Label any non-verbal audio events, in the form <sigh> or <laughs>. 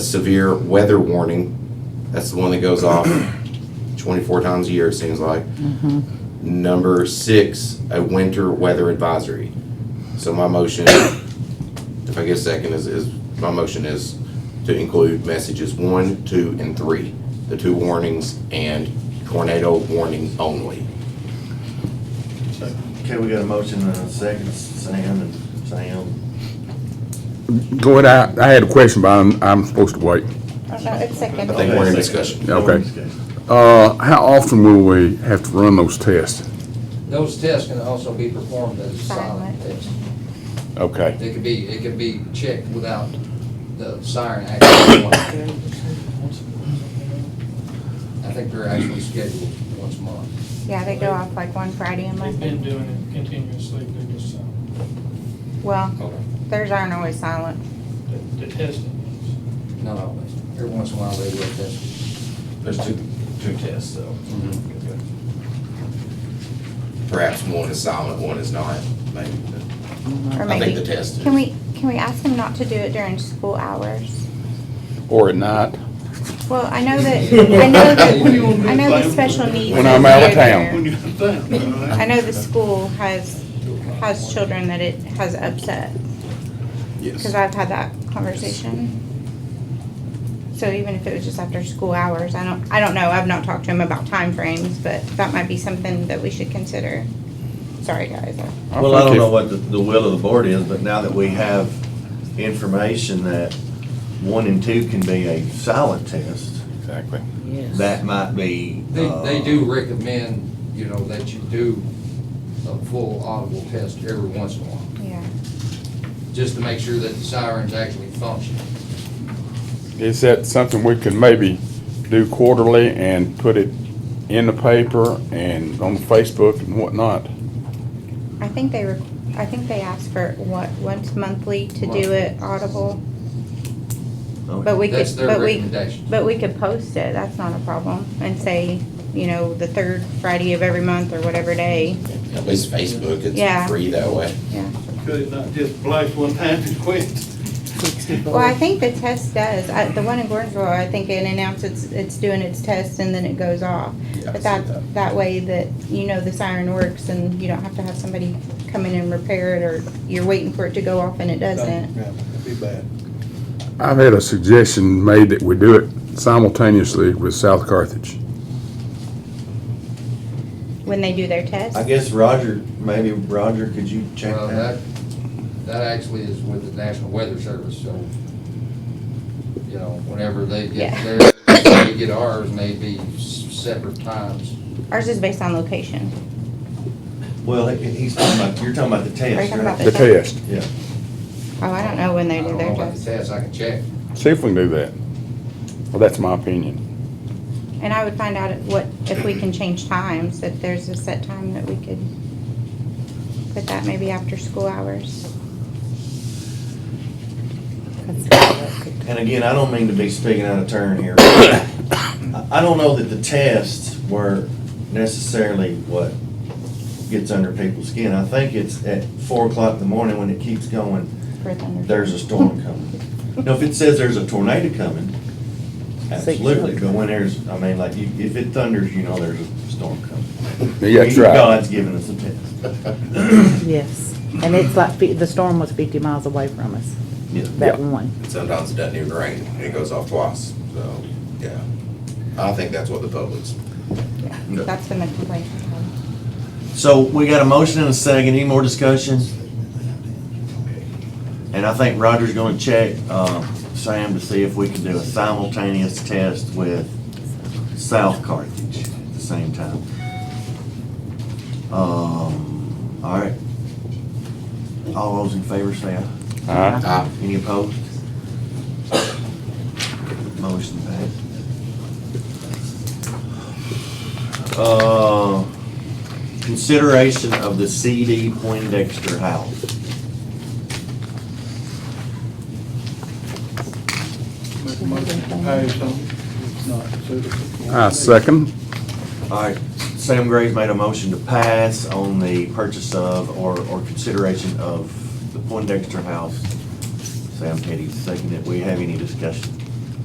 severe weather warning. That's the one that goes <clears throat> off 24 times a year, it seems like. Mm-hmm. Number six, a winter weather advisory. So my motion, if I get a second, is, is, my motion is to include messages one, two, and three. The two warnings and tornado warning only. Okay, we got a motion and a second, Sam and Sam. Go ahead, I, I had a question, but I'm, I'm supposed to wait. About a I second. think we're in discussion. Yeah, okay. Uh, how often will we have to run those tests? Those tests can also be performed as silent Silent. tests. Okay. They could be, it could be checked without the siren actually going. I think they're actually scheduled once a month. Yeah, they go off like one Friday and They've been Monday. doing it continuously, they're just, um, Well, Okay. theirs aren't always silent. the- the testing. Not always. Every once in a while they will test. There's two, two tests, though. Perhaps one is silent, one is not, maybe. Or I think maybe, the test is. can we, can we ask them not to do it during school hours? Or at night? Well, I know <laughs> that, I know that, I know the special needs. When I'm out of is town. there. I know the school has, has children that it has upset, because Yes. I've had that conversation. So even if it was just after school hours, I don't, I don't know, I've not talked to him about timeframes, but that might be something that we should consider. Sorry, guys. I- Well, I don't know what the, the will of the board is, but now that we have information that one and two can be a silent test, Exactly. that might be. They, uh, they do recommend, you know, that you do a full audible test every once in a while, Yeah. just to make sure that the sirens actually function. Is that something we could maybe do quarterly and put it in the paper and on Facebook and whatnot? I think they were, I think they asked for what, once monthly to do it audible, but we could, That's their but we, recommendation. but we could post it, that's not a problem. And say, you know, the third Friday of every month or whatever day, At least Facebook, Yeah. it's free that way. yeah. Could it not just blast one time and quit? Well, I think the test does, I, the one in Gordonsville, I think it announces it's, it's doing its test and then it goes off. Yeah, I But see that, that way that you know the siren works and you don't have to have somebody come in and repair it or you're waiting for it to go off and it doesn't. That'd be bad. I've had a suggestion made that we do it simultaneously with South Carthage. When they do their test, I guess Roger, maybe Roger, could you check Well, that? that, that actually is with the National Weather Service, so, you know, whenever they get Yeah. theirs, they get ours, maybe separate times. ours is based on location. Well, he- he's talking about, you're talking about the Are you test, talking about right? The test. Yeah. Oh, I don't know when they I do don't know their about the test. test, I can check. See if we can do that. Well, that's my opinion. And I would find out if what, if we can change times, if there's a set time that we could put that maybe after school hours. And again, I don't mean to be speaking out of turn <coughs> here. I I don't know that the tests were necessarily what gets under people's skin. I think it's at four o'clock in the morning when it keeps going, for thunder. there's a storm coming. Now, if it says there's a tornado coming, absolutely, but when there's, I mean, like, you- if it thunders, you know there's a storm coming. Yeah, that's right. God's giving us a test. Yes, and it's like, fi- the storm was fifty miles away from us, Yeah. that one. And sometimes it doesn't even rain, and it goes off twice, so, yeah. I don't think that's what the public's, Yeah, That's been the complaint. So we got a motion and a second. Any more discussion? And I think Roger's gonna check, uh, Sam to see if we can do a simultaneous test with South Carthage at the same time. Um, all right. All those in favor say aye. All right. I, Any opposed? Motion passed. Uh, consideration of the CD Poindexter House. Make a motion to pay something, it's not suitable. I second. All right, Sam Graves made a motion to pass on the purchase of or, or consideration of the Poindexter House. Sam Petty seconded. We have any discussion?